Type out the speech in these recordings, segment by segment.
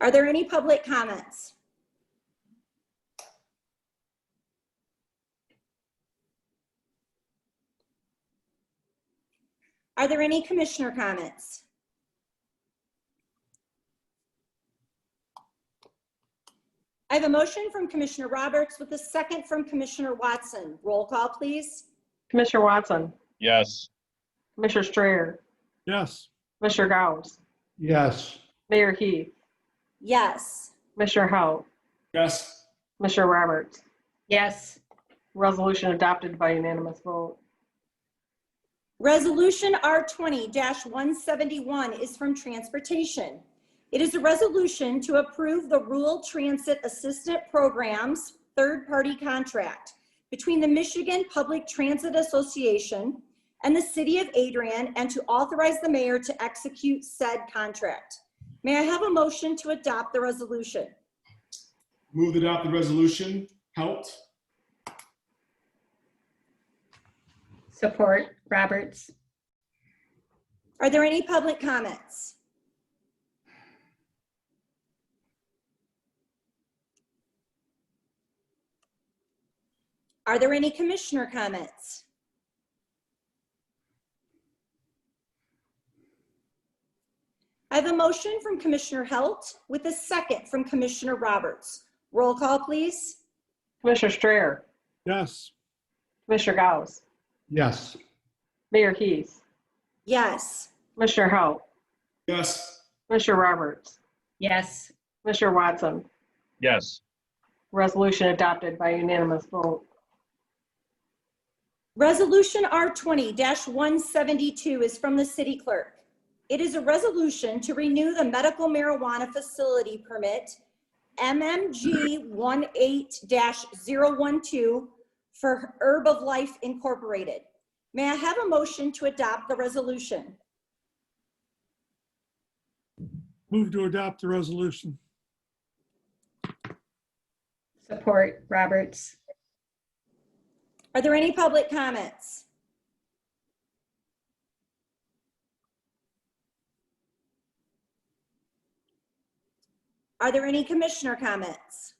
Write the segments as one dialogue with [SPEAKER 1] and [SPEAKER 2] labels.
[SPEAKER 1] Are there any public comments? Are there any commissioner comments? I have a motion from Commissioner Roberts with a second from Commissioner Watson. Roll call, please.
[SPEAKER 2] Commissioner Watson,
[SPEAKER 3] Yes.
[SPEAKER 2] Commissioner Strayer,
[SPEAKER 4] Yes.
[SPEAKER 2] Commissioner Gauss,
[SPEAKER 4] Yes.
[SPEAKER 2] Mayor Heath,
[SPEAKER 1] Yes.
[SPEAKER 2] Commissioner Hou,
[SPEAKER 4] Yes.
[SPEAKER 2] Commissioner Roberts.
[SPEAKER 5] yes,
[SPEAKER 2] Resolution adopted by unanimous vote.
[SPEAKER 1] Resolution R twenty one seventy-one is from Transportation. It is a resolution to approve the Rural Transit Assistant Program's third-party contract between the Michigan Public Transit Association and the City of Adrian and to authorize the mayor to execute said contract. May I have a motion to adopt the resolution?
[SPEAKER 6] Move to adopt the resolution. Helped.
[SPEAKER 5] support Roberts,
[SPEAKER 1] Are there any public comments? Are there any commissioner comments? I have a motion from Commissioner Halt with a second from Commissioner Roberts. Roll call, please.
[SPEAKER 2] Commissioner Strayer,
[SPEAKER 4] Yes.
[SPEAKER 2] Commissioner Gauss,
[SPEAKER 4] Yes.
[SPEAKER 2] Mayor Heath,
[SPEAKER 1] Yes.
[SPEAKER 2] Commissioner Hou,
[SPEAKER 6] Yes.
[SPEAKER 2] Commissioner Roberts,
[SPEAKER 5] yes,
[SPEAKER 2] Commissioner Watson.
[SPEAKER 3] Yes.
[SPEAKER 2] Resolution adopted by unanimous vote.
[SPEAKER 1] Resolution R twenty one seventy-two is from the city clerk. It is a resolution to renew the medical marijuana facility permit, MMG 18-012 for Herb of Life Incorporated. May I have a motion to adopt the resolution?
[SPEAKER 4] Move to adopt the resolution.
[SPEAKER 5] support Roberts,
[SPEAKER 1] Are there any public comments? Are there any commissioner comments?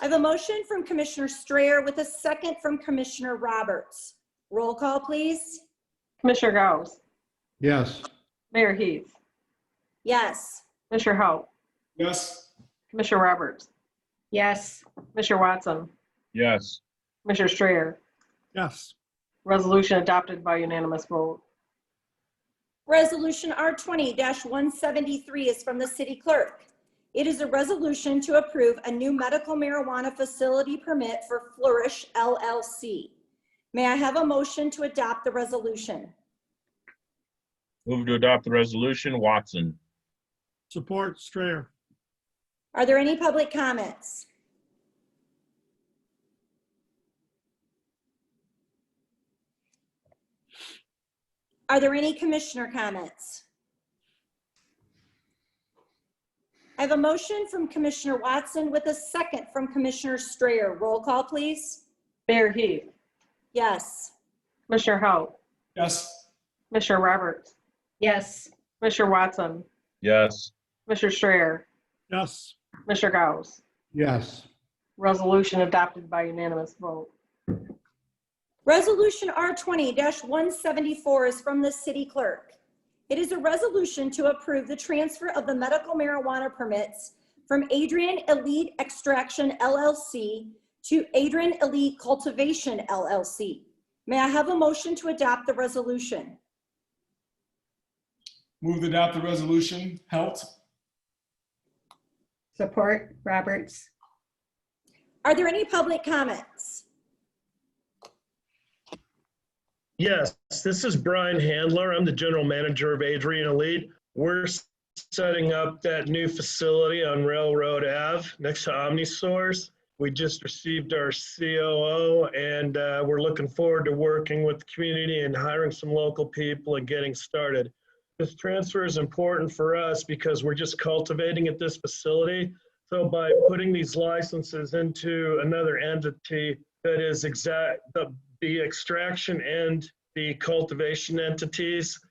[SPEAKER 1] I have a motion from Commissioner Strayer with a second from Commissioner Roberts. Roll call, please.
[SPEAKER 2] Commissioner Gauss,
[SPEAKER 4] Yes.
[SPEAKER 2] Mayor Heath,
[SPEAKER 1] Yes.
[SPEAKER 2] Commissioner Hou,
[SPEAKER 6] Yes.
[SPEAKER 2] Commissioner Roberts,
[SPEAKER 5] yes,
[SPEAKER 2] Commissioner Watson,
[SPEAKER 3] Yes.
[SPEAKER 2] Commissioner Strayer.
[SPEAKER 4] Yes.
[SPEAKER 2] Resolution adopted by unanimous vote.
[SPEAKER 1] Resolution R twenty one seventy-three is from the city clerk. It is a resolution to approve a new medical marijuana facility permit for Flourish LLC. May I have a motion to adopt the resolution?
[SPEAKER 3] Move to adopt the resolution. Watson.
[SPEAKER 4] Support Strayer.
[SPEAKER 1] Are there any public comments? Are there any commissioner comments? I have a motion from Commissioner Watson with a second from Commissioner Strayer. Roll call, please.
[SPEAKER 2] Mayor Heath,
[SPEAKER 1] Yes.
[SPEAKER 2] Commissioner Hou,
[SPEAKER 6] Yes.
[SPEAKER 2] Commissioner Roberts,
[SPEAKER 5] yes,
[SPEAKER 2] Commissioner Watson,
[SPEAKER 3] Yes.
[SPEAKER 2] Commissioner Strayer,
[SPEAKER 4] Yes.
[SPEAKER 2] Commissioner Gauss.
[SPEAKER 4] Yes.
[SPEAKER 2] Resolution adopted by unanimous vote.
[SPEAKER 1] Resolution R twenty one seventy-four is from the city clerk. It is a resolution to approve the transfer of the medical marijuana permits from Adrian Elite Extraction LLC to Adrian Elite Cultivation LLC. May I have a motion to adopt the resolution?
[SPEAKER 6] Move to adopt the resolution. Helped.
[SPEAKER 5] support Roberts,
[SPEAKER 1] Are there any public comments?
[SPEAKER 7] Yes, this is Brian Handler. I'm the general manager of Adrian Elite. We're s- setting up that new facility on Railroad Ave next to Omnisource. We just received our COO and uh, we're looking forward to working with the community and hiring some local people and getting started. This transfer is important for us because we're just cultivating at this facility. So by putting these licenses into another entity that is exact, the the extraction and the cultivation entities